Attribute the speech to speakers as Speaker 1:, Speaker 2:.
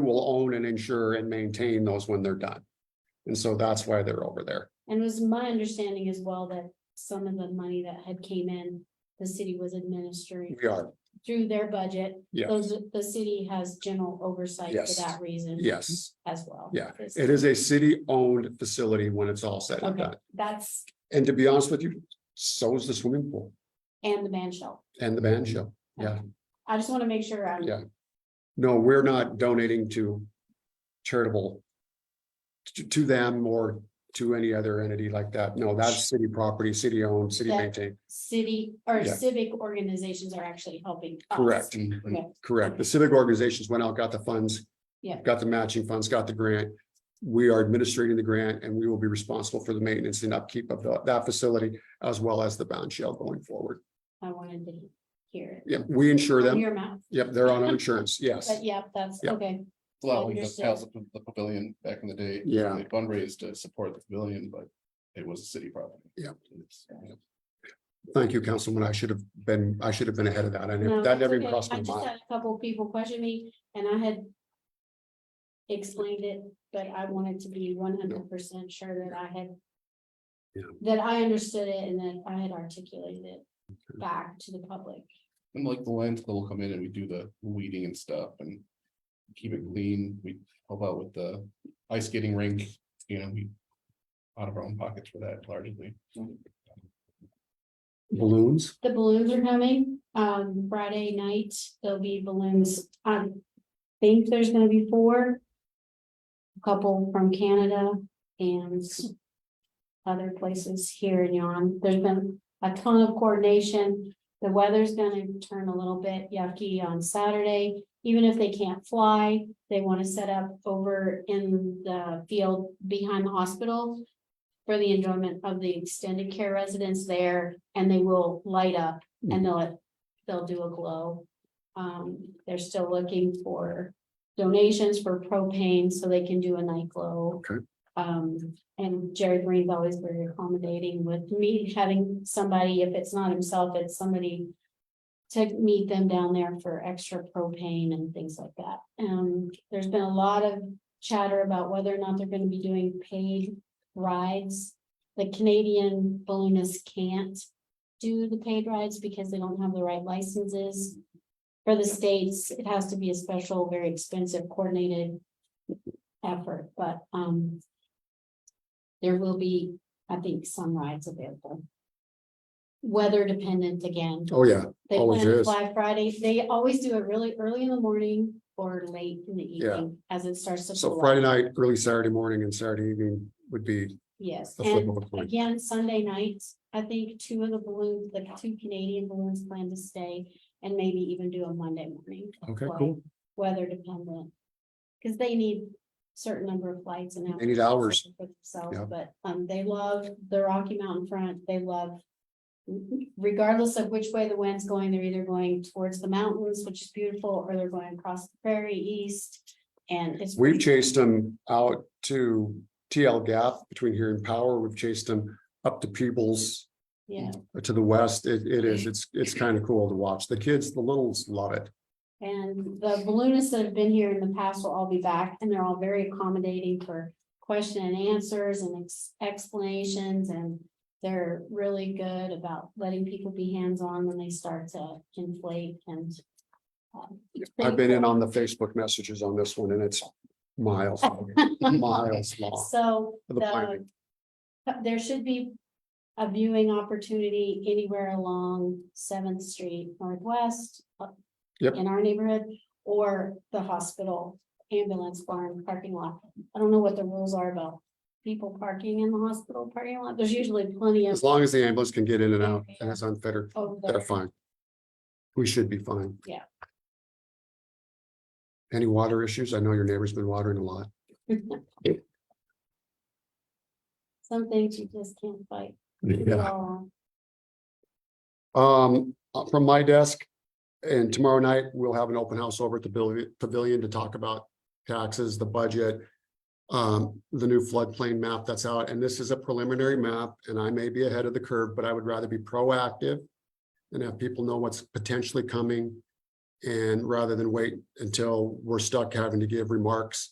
Speaker 1: will own and insure and maintain those when they're done. And so that's why they're over there.
Speaker 2: And it was my understanding as well that some of the money that had came in, the city was administering
Speaker 1: We are,
Speaker 2: through their budget.
Speaker 1: Yeah.
Speaker 2: Those, the city has general oversight
Speaker 1: Yes.
Speaker 2: for that reason.
Speaker 1: yes,
Speaker 2: As well.
Speaker 1: Yeah,
Speaker 2: It's-
Speaker 1: it is a city-owned facility when it's all said and
Speaker 2: Okay,
Speaker 1: done.
Speaker 2: that's,
Speaker 1: And to be honest with you, so is the swimming pool
Speaker 2: and the band shell.
Speaker 1: and the band shell. Yeah.
Speaker 2: I just want to make sure um, I'm.
Speaker 1: Yeah. No, we're not donating to charitable to, to them or to any other entity like that. No, that's city property, city-owned, city-maintained.
Speaker 2: city or
Speaker 1: Yeah.
Speaker 2: civic organizations are actually helping. us.
Speaker 1: Correct.
Speaker 2: Okay,
Speaker 1: Correct. The civic organizations went out, got the funds.
Speaker 2: Yeah.
Speaker 1: Got the matching funds, got the grant. We are administrating the grant and we will be responsible for the maintenance and upkeep of the- that facility as well as the bound shell going forward.
Speaker 2: I wanted to hear it.
Speaker 1: Yep, we insure
Speaker 2: From
Speaker 1: them.
Speaker 2: Your mouth,
Speaker 1: Yep, they're on our insurance. Yes.
Speaker 2: but yeah, that's
Speaker 1: Yeah.
Speaker 2: okay.
Speaker 3: Well, we just
Speaker 2: Understood.
Speaker 3: housed the the pavilion back in the day.
Speaker 1: Yeah.
Speaker 3: They fundraised to support the pavilion, but it was a city property.
Speaker 1: Yeah.
Speaker 3: It's-
Speaker 1: Thank you, Councilman. I should have been, I should have been ahead of that. I
Speaker 2: No,
Speaker 1: never, that
Speaker 2: that's
Speaker 1: never
Speaker 2: okay.
Speaker 1: even crossed
Speaker 2: I
Speaker 1: my
Speaker 2: just
Speaker 1: mind.
Speaker 2: had a couple people question me and I had. Explained it, but I wanted to be one hundred percent sure that I had.
Speaker 1: Yeah.
Speaker 2: That I understood it and that I had articulated it back to the public.
Speaker 3: And like the Lions Club will come in and we do the weeding and stuff and keep it clean. We help out with the ice skating rink, you know, we out of our own pockets for that largely.
Speaker 1: Balloons?
Speaker 2: The balloons are coming, um, Friday night, there'll be balloons, I think there's gonna be four. a Couple from Canada and. Other places here and yon, there's been a ton of coordination, the weather's gonna turn a little bit yucky on Saturday. Even if they can't fly, they wanna set up over in the field behind the hospital for the enjoyment of the extended care residents there, and they will light up and they'll, they'll do a glow. Um, they're still looking for donations for propane so they can do a night glow.
Speaker 1: Okay.
Speaker 2: Um, and Jerry Green's always very accommodating with me having somebody, if it's not himself, it's somebody to meet them down there for extra propane and things like that. Um, there's been a lot of chatter about whether or not they're gonna be doing paid rides. The Canadian balloonists can't do the paid rides because they don't have the right licenses. For the states, it has to be a special, very expensive coordinated effort, but, um, there will be, I think, some rides available. Weather dependent again.
Speaker 1: Oh, yeah.
Speaker 2: They
Speaker 1: Always
Speaker 2: plan to
Speaker 1: is.
Speaker 2: fly Friday. They always do it really early in the morning or late in the
Speaker 1: Yeah.
Speaker 2: evening as it starts to.
Speaker 1: So
Speaker 2: cool off.
Speaker 1: Friday night, early Saturday morning and Saturday evening would be
Speaker 2: Yes,
Speaker 1: the flip
Speaker 2: and
Speaker 1: of a coin.
Speaker 2: again, Sunday night, I think two of the balloons, the two Canadian balloons plan to stay and maybe even do a Monday morning,
Speaker 1: Okay,
Speaker 2: flight,
Speaker 1: cool.
Speaker 2: weather dependent. Cause they need certain number of flights and.
Speaker 1: They need hours.
Speaker 2: for themselves,
Speaker 1: Yeah.
Speaker 2: But um, they love the Rocky Mountain front, they love. Regardless of which way the wind's going, they're either going towards the mountains, which is beautiful, or they're going across the prairie east. And it's.
Speaker 1: We've chased them out to TL Gap between here and Power. We've chased them up to Peebles uh,
Speaker 2: Yeah,
Speaker 1: to the west. It, it is, it's, it's kind of cool to watch. The kids, the littles love it.
Speaker 2: And the balloonists that have been here in the past will all be back and they're all very accommodating for question and answers and ex- explanations and. They're really good about letting people be hands-on when they start to inflate and. um,
Speaker 1: I've been in on the Facebook messages on this one and it's miles, long, miles long.
Speaker 2: So
Speaker 1: The planning.
Speaker 2: the. uh, There should be a viewing opportunity anywhere along Seventh Street Northwest. uh,
Speaker 1: Yep.
Speaker 2: In our neighborhood or the hospital ambulance barn parking lot. I don't know what the rules are about people parking in the hospital parking lot. There's usually plenty of.
Speaker 1: As long as the ambulance can get in and out and it's unfettered,
Speaker 2: over
Speaker 1: they're
Speaker 2: there.
Speaker 1: fine. We should be fine.
Speaker 2: Yeah.
Speaker 1: Any water issues? I know your neighbor's been watering a lot.
Speaker 2: Some things you just can't fight. Uh,
Speaker 1: Um, uh, from my desk. And tomorrow night, we'll have an open house over at the pavilion, pavilion to talk about taxes, the budget. Um, the new floodplain map that's out, and this is a preliminary map, and I may be ahead of the curve, but I would rather be proactive. And have people know what's potentially coming And rather than wait until we're stuck having to give remarks